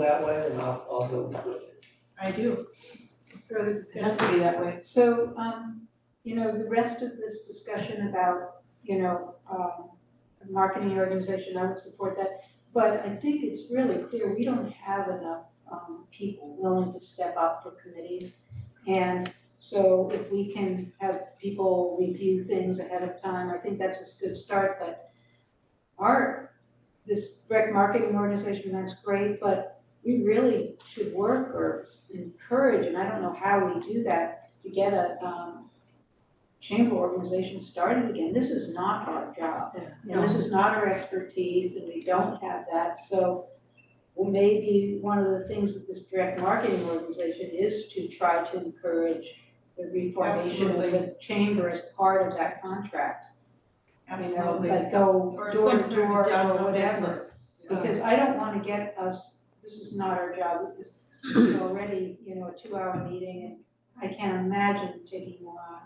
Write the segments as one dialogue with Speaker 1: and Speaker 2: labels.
Speaker 1: that way, and I'll, I'll go with it.
Speaker 2: I do. Further discussion?
Speaker 3: has to be that way.
Speaker 2: So, um, you know, the rest of this discussion about, you know, um, a marketing organization, I would support that. But I think it's really clear, we don't have enough, um, people willing to step up for committees. And so if we can have people review things ahead of time, I think that's a good start, but our, this rec marketing organization, that's great, but we really should work or encourage, and I don't know how we do that, to get a um chamber organization started again. This is not our job. And this is not our expertise and we don't have that, so well, maybe one of the things with this direct marketing organization is to try to encourage the reformation of the
Speaker 3: Absolutely.
Speaker 2: chamber as part of that contract. You know,
Speaker 3: Absolutely.
Speaker 2: like go
Speaker 3: Or
Speaker 2: door
Speaker 3: some
Speaker 2: to
Speaker 3: sort
Speaker 2: door
Speaker 3: of
Speaker 2: or
Speaker 3: downtown
Speaker 2: whatever.
Speaker 3: business. uh,
Speaker 2: Because I don't wanna get us, this is not our job, this is already, you know, a two-hour meeting, and I can't imagine taking more on.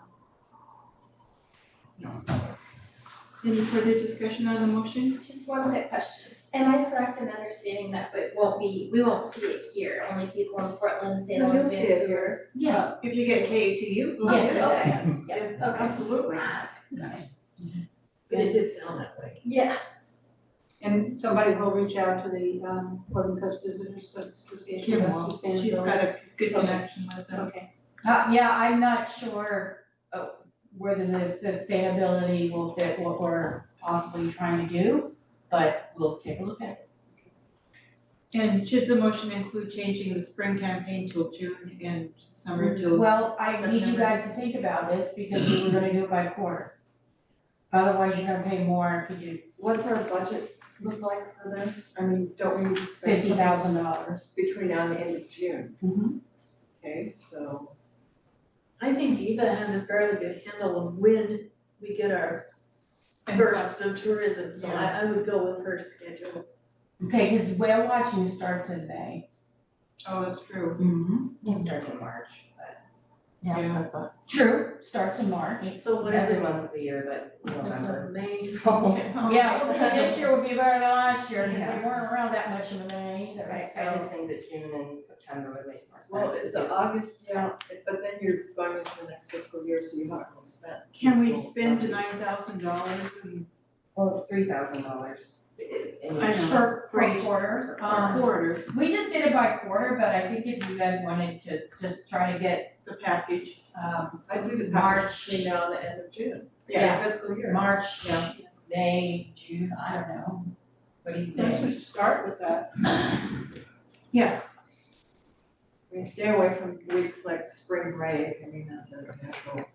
Speaker 3: Any further discussion on the motion?
Speaker 4: Just one quick question. Am I correct in understanding that it won't be, we won't see it here, only people in Portland, Salem,
Speaker 3: No, you'll
Speaker 4: Vancouver?
Speaker 3: see it here.
Speaker 4: Yeah,
Speaker 3: If you get K to you, we'll
Speaker 4: yes,
Speaker 3: get it.
Speaker 4: okay, okay.
Speaker 3: Absolutely.
Speaker 5: But it did sound that way.
Speaker 4: Yeah,
Speaker 2: And somebody will reach out to the, um, Portland Coast Visitors Association,
Speaker 3: Kim
Speaker 2: that's
Speaker 3: will.
Speaker 2: sustainable.
Speaker 3: She's got a good connection with them.
Speaker 2: Okay,
Speaker 6: Uh, yeah, I'm not sure, uh, whether the sustainability will fit what we're possibly trying to do, but we'll take a look at it.
Speaker 3: And should the motion include changing the spring campaign till June and summer till?
Speaker 6: Well, I need you guys to think about this because we were gonna do it by quarter. Otherwise, you're gonna pay more if you do
Speaker 5: What's our budget look like for this? I mean, don't we need to spend
Speaker 6: fifty
Speaker 5: something
Speaker 6: thousand dollars.
Speaker 5: between now and the end of June? Okay, so.
Speaker 7: I think Eva has a fairly good handle of when we get our
Speaker 3: And
Speaker 7: bursts
Speaker 3: plus-
Speaker 7: of tourism, so I, I would go with her schedule.
Speaker 6: Okay, cause whale watching starts in May.
Speaker 3: Oh, that's true.
Speaker 6: Mm-hmm.
Speaker 5: It starts in March, but.
Speaker 3: Yeah.
Speaker 6: True, starts in March.
Speaker 7: So what are the,
Speaker 5: month of the year, but
Speaker 7: so May,
Speaker 5: So,
Speaker 6: Yeah, hopefully this year will be better than last year, cause they weren't around that much in May either,
Speaker 8: Right,
Speaker 6: so.
Speaker 8: I just think that June and September would make more sense.
Speaker 5: well, it's the August, yeah, but then you're going into the next fiscal year, so you haven't really spent.
Speaker 3: Can we
Speaker 5: fiscal
Speaker 3: spend
Speaker 5: budget.
Speaker 3: nine thousand dollars and
Speaker 8: Well, it's three thousand dollars.
Speaker 3: I know.
Speaker 6: For, for
Speaker 3: Great.
Speaker 6: quarter,
Speaker 3: a
Speaker 6: um,
Speaker 3: quarter
Speaker 6: We just did it by quarter, but I think if you guys wanted to just try to get,
Speaker 3: the package?
Speaker 6: um,
Speaker 5: I do the
Speaker 6: March.
Speaker 5: package between now and the end of June,
Speaker 6: Yeah.
Speaker 5: fiscal year.
Speaker 6: March,
Speaker 3: Yeah.
Speaker 6: May, June, I don't know. What do you
Speaker 2: so let's
Speaker 6: think?
Speaker 2: just start with that.
Speaker 5: I mean, stay away from weeks like spring break, I mean, that's a natural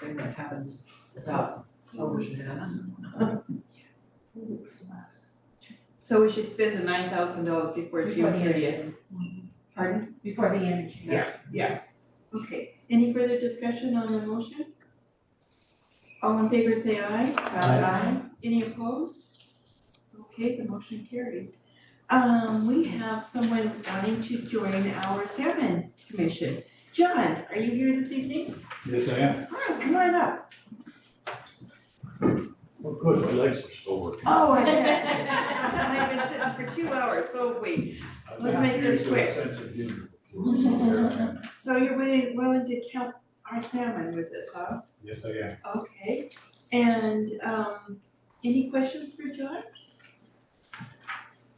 Speaker 5: thing that happens without television ads.
Speaker 3: So we should spend the nine thousand dollars before
Speaker 6: Before
Speaker 3: June
Speaker 6: the end of
Speaker 3: thirtieth.
Speaker 6: June. Mhm.
Speaker 3: Pardon?
Speaker 6: Before the end of June.
Speaker 3: Yeah. Okay. Any further discussion on the motion? All in favor, say aye.
Speaker 1: Aye.
Speaker 3: Any opposed? Okay, the motion carries. Um, we have someone wanting to join our salmon commission. John, are you here this evening?
Speaker 9: Yes, I am.
Speaker 3: Hi, come on up.
Speaker 9: Well, good, my legs are still working.
Speaker 3: Oh, I bet. I've been sitting for two hours, so wait. Let's make this quick.
Speaker 9: Sense of humor. There I am.
Speaker 3: So you're willing, willing to count our salmon with us, huh?
Speaker 9: Yes, I am.
Speaker 3: Okay. And, um, any questions for John?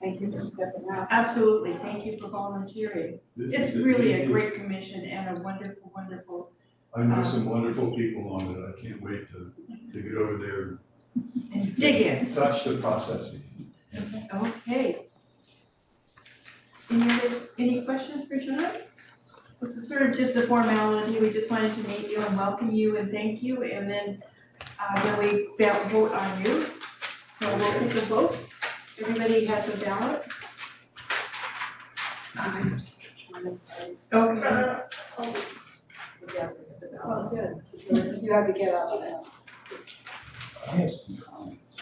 Speaker 2: Thank you for stepping out.
Speaker 3: Absolutely, thank you for volunteering.
Speaker 9: This
Speaker 3: It's
Speaker 9: is-
Speaker 3: really
Speaker 9: this
Speaker 3: a
Speaker 9: is-
Speaker 3: great uh, commission and a wonderful, wonderful,
Speaker 9: I know some wonderful people on it. I can't wait to, to get over there
Speaker 3: and dig in.
Speaker 9: and touch the processing.
Speaker 3: Okay. Any other, any questions for John? This is sort of just a formality, we just wanted to meet you and welcome you and thank you, and then, uh, then we ba- vote on you. So we'll take a vote, everybody has a ballot,
Speaker 5: I'm just trying to find some-
Speaker 3: okay,
Speaker 4: Oh,
Speaker 5: Yeah, we have the
Speaker 2: Oh,
Speaker 5: balance.
Speaker 2: good, So you have to get up now.
Speaker 9: I have some comments.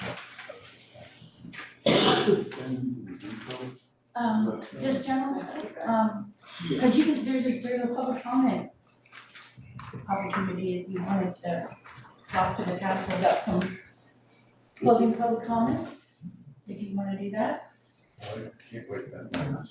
Speaker 9: Send the info,
Speaker 6: Um,
Speaker 9: but, uh,
Speaker 6: just general stuff, um, cause you can, there's a, there's a public comment opportunity if you wanted to talk to the council about some closing public comments, if you wanna do that.
Speaker 9: I can't wait that much.